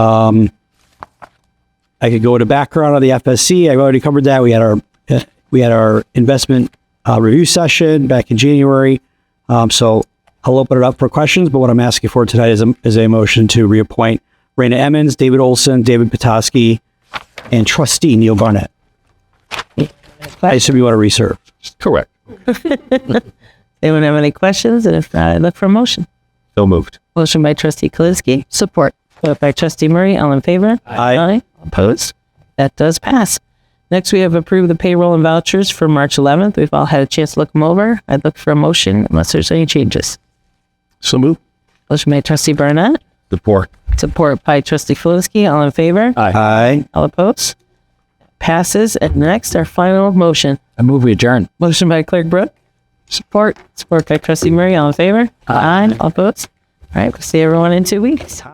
I could go to background on the FSC. I've already covered that. We had our we had our investment uh, review session back in January. Um, so I'll open it up for questions. But what I'm asking for tonight is a, is a motion to reappoint Raina Emmons, David Olson, David Petoskey, and trustee Neil Barnett. I assume you want to reserve. Correct. Anyone have any questions? And if not, I look for a motion. So moved. Motion by trustee Kalinsky, Support. support by trustee Murray. All in favor? Aye. Opposed? That does pass. Next, we have approved the payroll and vouchers for March 11th. We've all had a chance to look them over. I'd look for a motion unless there's any changes. So moved. Motion by trustee Barnett, Support. support by trustee Kalinsky. All in favor? Aye. Aye. All opposed? Passes. And next, our final motion. I move we adjourn. Motion by clerk Brooke, Support. support by trustee Murray. All in favor? Aye. All opposed? All right, we'll see everyone in two weeks.